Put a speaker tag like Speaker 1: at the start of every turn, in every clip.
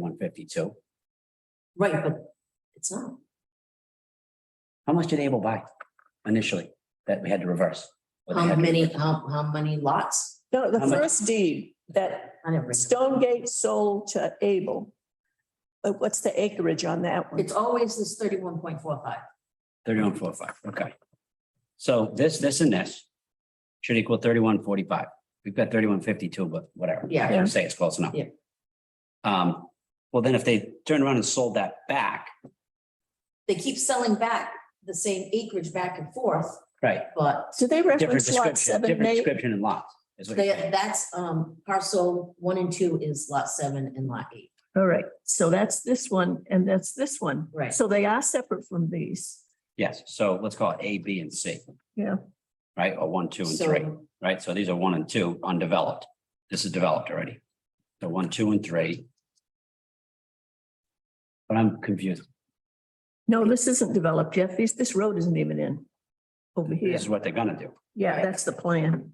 Speaker 1: one fifty-two.
Speaker 2: Right, but it's not.
Speaker 1: How much did Able buy initially that we had to reverse? Or they
Speaker 2: How
Speaker 1: had
Speaker 3: Um,
Speaker 1: to-
Speaker 2: many, how, how many lots?
Speaker 3: No, the
Speaker 1: How much?
Speaker 3: first deed that
Speaker 2: I never.
Speaker 3: Stonegate sold to Abel. Uh, What's the acreage on that one?
Speaker 2: It's always this thirty-one point four five.
Speaker 1: Thirty-one, four, five, okay. So this, this and this should equal thirty-one, forty-five. We've got thirty-one, fifty-two, but whatever.
Speaker 2: Yeah.
Speaker 1: Let's Say it's close enough.
Speaker 2: Yeah.
Speaker 1: Um, well, then if they turned around and sold that back,
Speaker 2: They keep selling back the same acreage back and forth,
Speaker 1: right,
Speaker 2: but
Speaker 3: Do they
Speaker 1: different
Speaker 3: reference lot
Speaker 1: description,
Speaker 3: seven and
Speaker 1: different
Speaker 3: eight?
Speaker 1: description and lots. is what you're
Speaker 2: they,
Speaker 1: saying.
Speaker 2: that's, um, parcel one and two is lot seven and lot eight.
Speaker 3: All right, so that's this one and that's this one.
Speaker 2: Right.
Speaker 3: So they are separate from these.
Speaker 1: Yes, so let's call it A, B, and C.
Speaker 3: Yeah.
Speaker 1: Right, or one, two, and
Speaker 2: So
Speaker 1: three, right? So these are one and two undeveloped. This is developed already. So one, two, and three. But I'm confused.
Speaker 3: No, this isn't developed yet. This, this road isn't even in over here.
Speaker 1: This is what they're gonna do.
Speaker 3: Yeah, that's the plan.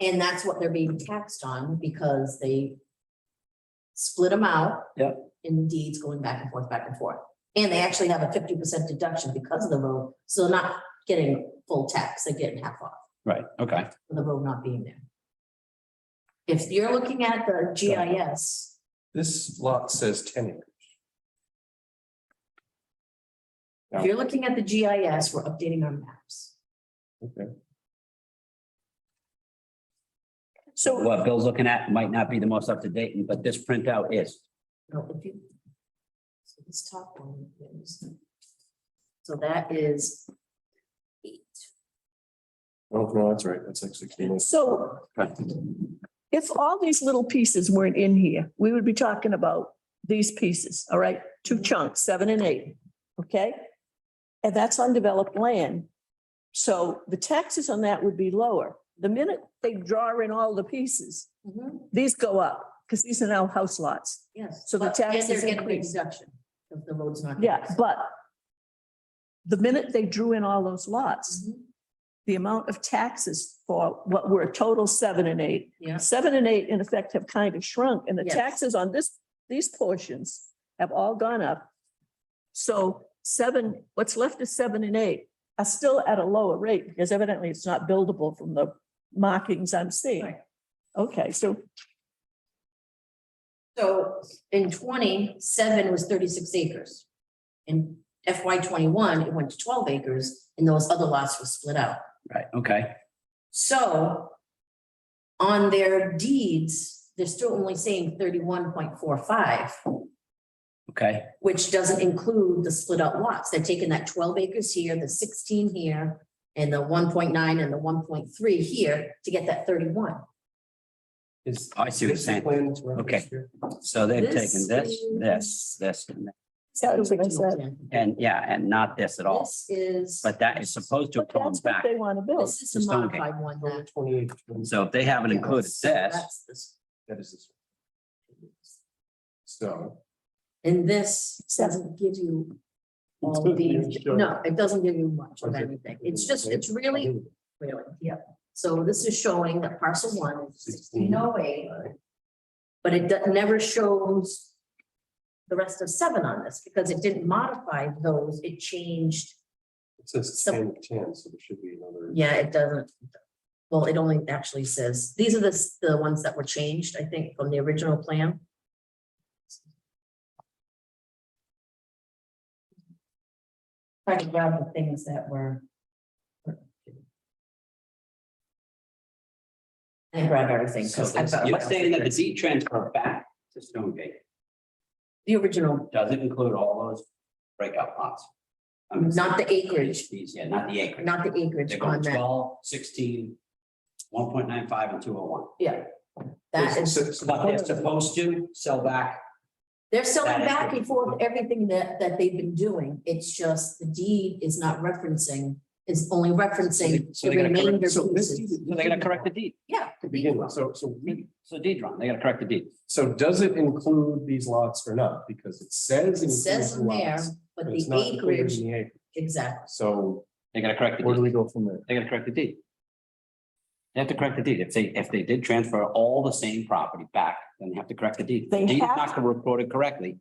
Speaker 2: And that's what they're being taxed on because they split them out.
Speaker 1: Yep.
Speaker 2: In deeds going back and forth, back and forth. And they actually have a fifty percent deduction because of the road, so they're not getting full tax, they're getting half off
Speaker 1: Right, okay.
Speaker 2: for the road not being there. If you're looking at the GIS,
Speaker 4: This lot says ten acres.
Speaker 2: if you're looking at the GIS, we're updating our maps.
Speaker 4: Okay.
Speaker 3: So,
Speaker 1: What Bill's looking at might not be the most up to date, but this printout is.
Speaker 2: No, if you. So this top one is. So that is. Eight.
Speaker 4: Oh, no, that's right, that's like sixteen.
Speaker 3: so if all these little pieces weren't in here, we would be talking about these pieces, all right? Two chunks, seven and eight, okay? And that's undeveloped land. So the taxes on that would be lower. The minute they draw in all the pieces,
Speaker 2: Mhm,
Speaker 3: these go up because these are now house lots.
Speaker 2: Yes.
Speaker 3: So the
Speaker 2: But- and
Speaker 3: taxes
Speaker 2: they're getting a
Speaker 3: increase.
Speaker 2: Deduction if the road's not.
Speaker 3: Yeah, but the minute they drew in all those lots,
Speaker 2: Mhm,
Speaker 3: the amount of taxes for what were a total seven and eight,
Speaker 2: Yeah,
Speaker 3: seven and eight in effect have kind of shrunk and the
Speaker 2: Yes.
Speaker 3: taxes on this, these portions have all gone up. So seven, what's left is seven and eight are still at a lower rate because evidently it's not buildable from the markings I'm seeing.
Speaker 2: Right.
Speaker 3: Okay, so
Speaker 2: so in twenty-seven was thirty-six acres. In FY twenty-one, it went to twelve acres and those other lots were split out.
Speaker 1: Right, okay.
Speaker 2: So on their deeds, they're still only saying thirty-one point four five,
Speaker 1: Okay,
Speaker 2: which doesn't include the split up lots. They're taking that twelve acres here, the sixteen here, and the one point nine and the one point three here to get that thirty-one.
Speaker 4: Is.
Speaker 1: I see what you're saying. Okay. so they've
Speaker 2: This
Speaker 1: taken this, this,
Speaker 2: is-
Speaker 1: this, and that.
Speaker 3: that was what I said.
Speaker 1: and yeah, and not this at all.
Speaker 2: This is.
Speaker 1: But that is supposed to
Speaker 3: But
Speaker 1: come
Speaker 3: that's what
Speaker 1: back.
Speaker 3: they want to build.
Speaker 2: This is
Speaker 1: the
Speaker 2: a
Speaker 1: Stonegate.
Speaker 2: modified one that.
Speaker 4: Twenty-eight.
Speaker 1: So if they haven't included
Speaker 2: Yes,
Speaker 1: this,
Speaker 2: that's this.
Speaker 4: That is this. one. So.
Speaker 2: And this doesn't give you all
Speaker 4: It's
Speaker 2: these,
Speaker 4: just-
Speaker 2: no, it doesn't give you much of anything. It's just, it's really, really, yeah. So this is showing that parcel one is sixteen oh eight, but it do- never shows the rest of seven on this because it didn't modify those. It changed,
Speaker 4: It says
Speaker 2: So-
Speaker 4: 10, 10, so there should be another.
Speaker 2: yeah, it doesn't. Well, it only actually says, these are the, s- the ones that were changed, I think, from the original plan. Trying to grab the things that were. And grab everything, because I've got.
Speaker 1: You're saying that the deed transfer back to Stonegate
Speaker 2: The original,
Speaker 1: doesn't include all those breakout lots. I'm just-
Speaker 2: not the acreage,
Speaker 1: These, yeah, not the acreage.
Speaker 2: not the acreage
Speaker 1: They're
Speaker 2: on
Speaker 1: going
Speaker 2: that,
Speaker 1: 12, 16, 1.95, and two oh one.
Speaker 2: yeah. That is,
Speaker 4: So- so-
Speaker 1: But they're supposed to sell back,
Speaker 2: they're selling
Speaker 1: that is
Speaker 2: back
Speaker 1: what-
Speaker 2: and forth everything that, that they've been doing, it's just the deed is not referencing, is only referencing
Speaker 1: So they
Speaker 2: the
Speaker 1: gotta correct-
Speaker 2: remainder
Speaker 4: so this
Speaker 2: pieces.
Speaker 4: deed-
Speaker 1: so they're gonna correct the deed.
Speaker 2: Yeah.
Speaker 4: To begin with, so, so we,
Speaker 1: So deed wrong, they gotta correct the deed.
Speaker 4: so does it include these lots or not? Because it says.
Speaker 2: It says
Speaker 4: includes
Speaker 2: in there,
Speaker 4: lots,
Speaker 2: but
Speaker 4: it's
Speaker 2: the
Speaker 4: not included in
Speaker 2: acreage,
Speaker 4: the acre.
Speaker 2: exactly.
Speaker 4: So
Speaker 1: They gotta correct the
Speaker 4: where do
Speaker 1: deed.
Speaker 4: we go from there?
Speaker 1: They gotta correct the deed. They have to correct the deed. If they, if they did transfer all the same property back, then they have to correct the deed. If
Speaker 3: They
Speaker 1: The deed is
Speaker 3: have
Speaker 1: not reported correctly.